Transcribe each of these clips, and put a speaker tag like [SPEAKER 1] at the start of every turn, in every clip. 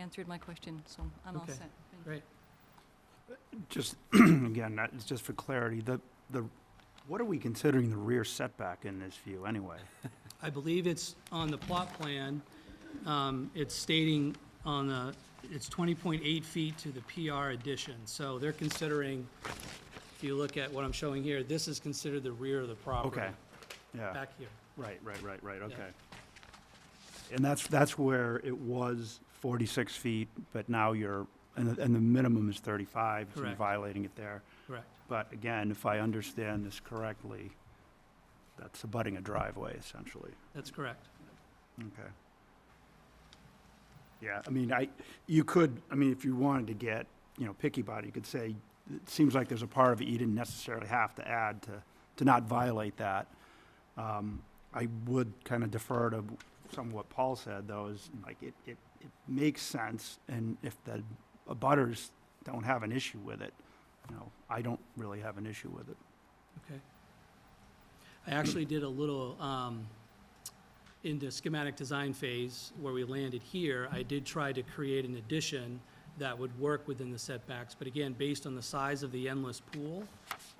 [SPEAKER 1] answered my question, so I'm all
[SPEAKER 2] Okay,
[SPEAKER 1] set. Thank
[SPEAKER 2] great.
[SPEAKER 3] Just, again, that- it's just for clarity, the, the, what are we considering the rear setback in this view anyway?
[SPEAKER 2] I believe it's on the plot plan, um, it's stating on the, it's twenty point eight feet to the PR addition. So they're considering, if you look at what I'm showing here, this is considered the rear of the property.
[SPEAKER 3] Okay, yeah,
[SPEAKER 2] Back here.
[SPEAKER 3] right, right, right, right, okay. And that's, that's where it was forty-six feet, but now you're, and, the- and the minimum is thirty-five, so you're
[SPEAKER 2] Correct.
[SPEAKER 3] violating it there.
[SPEAKER 2] Correct.
[SPEAKER 3] But again, if I understand this correctly, that's abutting a driveway essentially.
[SPEAKER 2] That's correct.
[SPEAKER 3] Okay. Yeah, I mean, I, you could, I mean, if you wanted to get, you know, picky about it, you could say, it seems like there's a part of it you didn't necessarily have to add to, to not violate that. Um, I would kind of defer to some of what Paul said, though, is like, it, it, it makes sense, and if the abutters don't have an issue with it, you know, I don't really have an issue with it.
[SPEAKER 2] I actually did a little, um, in the schematic design phase where we landed here, I did try to create an addition that would work within the setbacks, but again, based on the size of the endless pool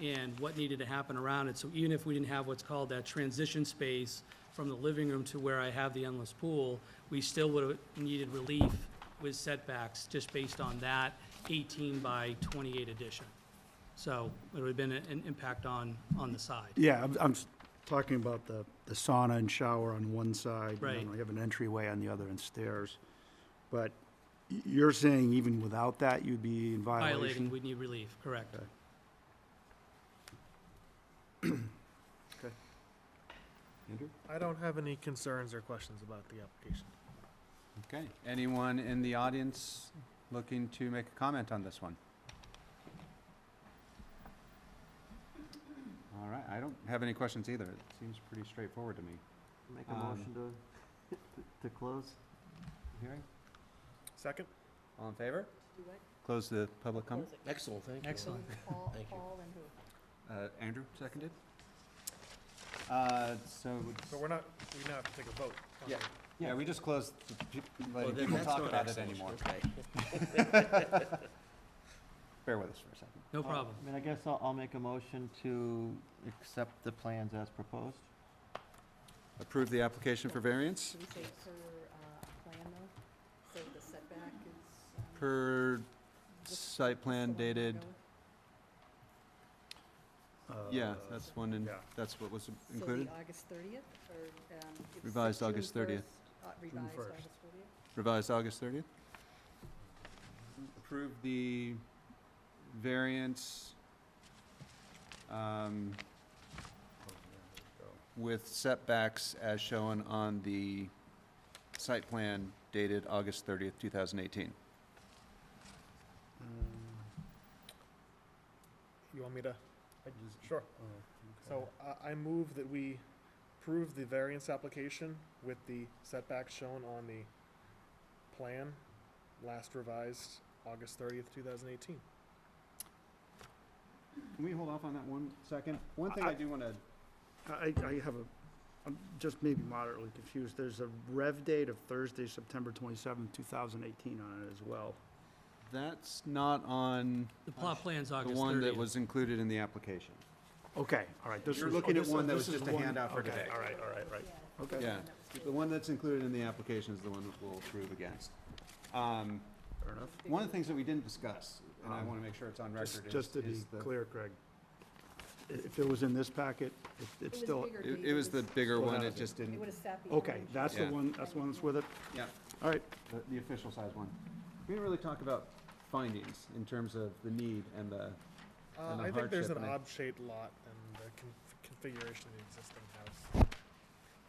[SPEAKER 2] and what needed to happen around it, so even if we didn't have what's called that transition space from the living room to where I have the endless pool, we still would have needed relief with setbacks just based on that eighteen by twenty-eight addition. So it would have been a- an impact on, on the side.
[SPEAKER 3] Yeah, I'm, I'm s- talking about the, the sauna and shower on one side. and then
[SPEAKER 2] Right.
[SPEAKER 3] we have an entryway on the other and stairs. But y- you're saying even without that, you'd be in
[SPEAKER 2] Violating,
[SPEAKER 3] violation?
[SPEAKER 2] we need relief, correct.
[SPEAKER 3] Okay.
[SPEAKER 4] I don't have any concerns or questions about the application.
[SPEAKER 5] Okay, anyone in the audience looking to make a comment on this one? All right, I don't have any questions either. It seems pretty straightforward to me.
[SPEAKER 6] Make
[SPEAKER 5] Um,
[SPEAKER 6] a motion to, to close?
[SPEAKER 5] Hearing,
[SPEAKER 4] Second?
[SPEAKER 5] all in favor? Close the public comment.
[SPEAKER 7] Excellent, thank you.
[SPEAKER 2] Excellent.
[SPEAKER 7] Paul, Paul and who?
[SPEAKER 5] Uh, Andrew, seconded. Uh, so, would-
[SPEAKER 4] So we're not, we now have to take a vote. on
[SPEAKER 5] yeah,
[SPEAKER 4] it.
[SPEAKER 5] yeah, we just closed, the pe-
[SPEAKER 7] Well,
[SPEAKER 5] letting
[SPEAKER 7] then
[SPEAKER 5] people
[SPEAKER 7] that's
[SPEAKER 5] talk
[SPEAKER 7] not
[SPEAKER 5] about it
[SPEAKER 7] excellent,
[SPEAKER 5] anymore.
[SPEAKER 7] okay.
[SPEAKER 5] Bear with us for a second.
[SPEAKER 2] No problem.
[SPEAKER 6] I mean, I guess I'll, I'll make a motion to accept the plans as proposed.
[SPEAKER 5] Approve the application for variance
[SPEAKER 7] Should we say per, uh, plan though? So the setback is, um.
[SPEAKER 5] per
[SPEAKER 7] this-
[SPEAKER 5] site plan
[SPEAKER 7] the one we're
[SPEAKER 5] dated
[SPEAKER 7] going-
[SPEAKER 5] Yeah,
[SPEAKER 3] Uh,
[SPEAKER 5] that's one, and
[SPEAKER 3] yeah.
[SPEAKER 5] that's what was
[SPEAKER 7] so the
[SPEAKER 5] included,
[SPEAKER 7] August thirtieth or, um. it's
[SPEAKER 5] Revised
[SPEAKER 7] June
[SPEAKER 5] August 30th.
[SPEAKER 7] 1st, uh, Revised
[SPEAKER 3] first.
[SPEAKER 7] August thirtieth?
[SPEAKER 5] revised August 30th. Approve the variance um, with setbacks as shown on the site plan dated August 30th, 2018.
[SPEAKER 3] Uh,
[SPEAKER 4] You want me to? Sure.
[SPEAKER 3] Oh,
[SPEAKER 4] So I, I move that we approve the variance application with the setbacks shown on the plan, last revised August thirtieth, two thousand eighteen.
[SPEAKER 5] Can we hold off on that one second? One
[SPEAKER 3] thing I
[SPEAKER 5] do want to...
[SPEAKER 3] I, I have a, I'm just maybe moderately confused. There's a rev date of Thursday, September twenty-seventh, two thousand eighteen on it as well.
[SPEAKER 5] That's not on
[SPEAKER 2] The plot plan's
[SPEAKER 5] the
[SPEAKER 2] August 30th.
[SPEAKER 5] one that was included in the application.
[SPEAKER 3] Okay, all right. this
[SPEAKER 5] You're
[SPEAKER 3] is-
[SPEAKER 5] looking
[SPEAKER 3] oh,
[SPEAKER 5] at
[SPEAKER 3] this-
[SPEAKER 5] one that
[SPEAKER 3] this
[SPEAKER 5] was
[SPEAKER 3] is
[SPEAKER 5] just a
[SPEAKER 3] one-
[SPEAKER 5] handout for
[SPEAKER 3] okay,
[SPEAKER 5] today.
[SPEAKER 3] All right, all right, right. Okay.
[SPEAKER 5] Yeah, the one that's included in the application is the one we'll approve against. Um,
[SPEAKER 3] Fair enough.
[SPEAKER 5] One of the things that we didn't discuss, and I
[SPEAKER 3] Um,
[SPEAKER 5] want to make sure it's on
[SPEAKER 3] Just-
[SPEAKER 5] record, is-
[SPEAKER 3] Just to
[SPEAKER 5] is
[SPEAKER 3] be
[SPEAKER 5] the-
[SPEAKER 3] clear, Craig, i- if it was in this packet, it- it's
[SPEAKER 7] was
[SPEAKER 3] still,
[SPEAKER 7] bigger,
[SPEAKER 5] It
[SPEAKER 7] Dave,
[SPEAKER 5] it was the bigger
[SPEAKER 3] Well,
[SPEAKER 5] one,
[SPEAKER 3] that
[SPEAKER 5] it
[SPEAKER 3] was
[SPEAKER 5] just
[SPEAKER 7] It
[SPEAKER 5] didn't,
[SPEAKER 7] would have sat the.
[SPEAKER 3] okay,
[SPEAKER 7] orange
[SPEAKER 3] that's the
[SPEAKER 5] Yeah.
[SPEAKER 3] one, that's the one that's with it?
[SPEAKER 5] yeah,
[SPEAKER 3] All right,
[SPEAKER 5] the- the official size one. We didn't really talk about findings in terms of the need and the,
[SPEAKER 4] Uh,
[SPEAKER 5] And the
[SPEAKER 4] I think there's
[SPEAKER 5] hardship,
[SPEAKER 4] an
[SPEAKER 5] I mean.
[SPEAKER 4] odd-shaped lot and the con- configuration of the existing house.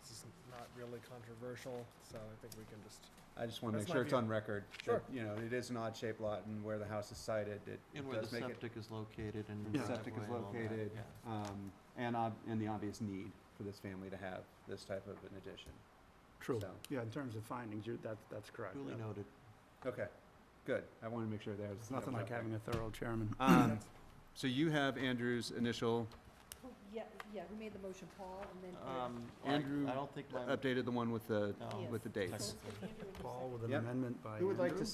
[SPEAKER 4] This is not really controversial, so I think we can just.
[SPEAKER 5] I just want to
[SPEAKER 4] That's
[SPEAKER 5] make
[SPEAKER 4] my
[SPEAKER 5] sure it's
[SPEAKER 4] view.
[SPEAKER 5] on record. that,
[SPEAKER 4] Sure.
[SPEAKER 5] You know, it is an odd-shaped lot, and where the house is sited, it it
[SPEAKER 6] And where the
[SPEAKER 5] does make it
[SPEAKER 6] septic is located and.
[SPEAKER 3] Yeah.
[SPEAKER 6] the
[SPEAKER 5] septic
[SPEAKER 6] driveway
[SPEAKER 5] is
[SPEAKER 6] and all that,
[SPEAKER 5] located,
[SPEAKER 6] yeah.
[SPEAKER 5] um, and ob- and the obvious need for this family to have this type of an addition.
[SPEAKER 3] true.
[SPEAKER 5] So-
[SPEAKER 3] Yeah, in terms of findings, you're, that, that's correct.
[SPEAKER 6] Duly noted.
[SPEAKER 5] Okay, good. I want to make sure there's.
[SPEAKER 3] It's nothing like having a thorough chairman.
[SPEAKER 5] Um, so you have Andrew's initial,
[SPEAKER 7] Who- Oh, Yeah, yeah, who made the motion, Paul, and then. Eric.
[SPEAKER 6] Um, I,
[SPEAKER 5] Andrew uh,
[SPEAKER 6] I don't think my.
[SPEAKER 5] updated the one with the,
[SPEAKER 6] no.
[SPEAKER 7] Yes.
[SPEAKER 5] with the
[SPEAKER 7] So
[SPEAKER 5] dates.
[SPEAKER 7] it's been Andrew and you
[SPEAKER 3] Paul
[SPEAKER 7] seconded.
[SPEAKER 3] with an
[SPEAKER 5] Yep.
[SPEAKER 3] amendment by
[SPEAKER 5] Who would like
[SPEAKER 3] Andrew?
[SPEAKER 5] to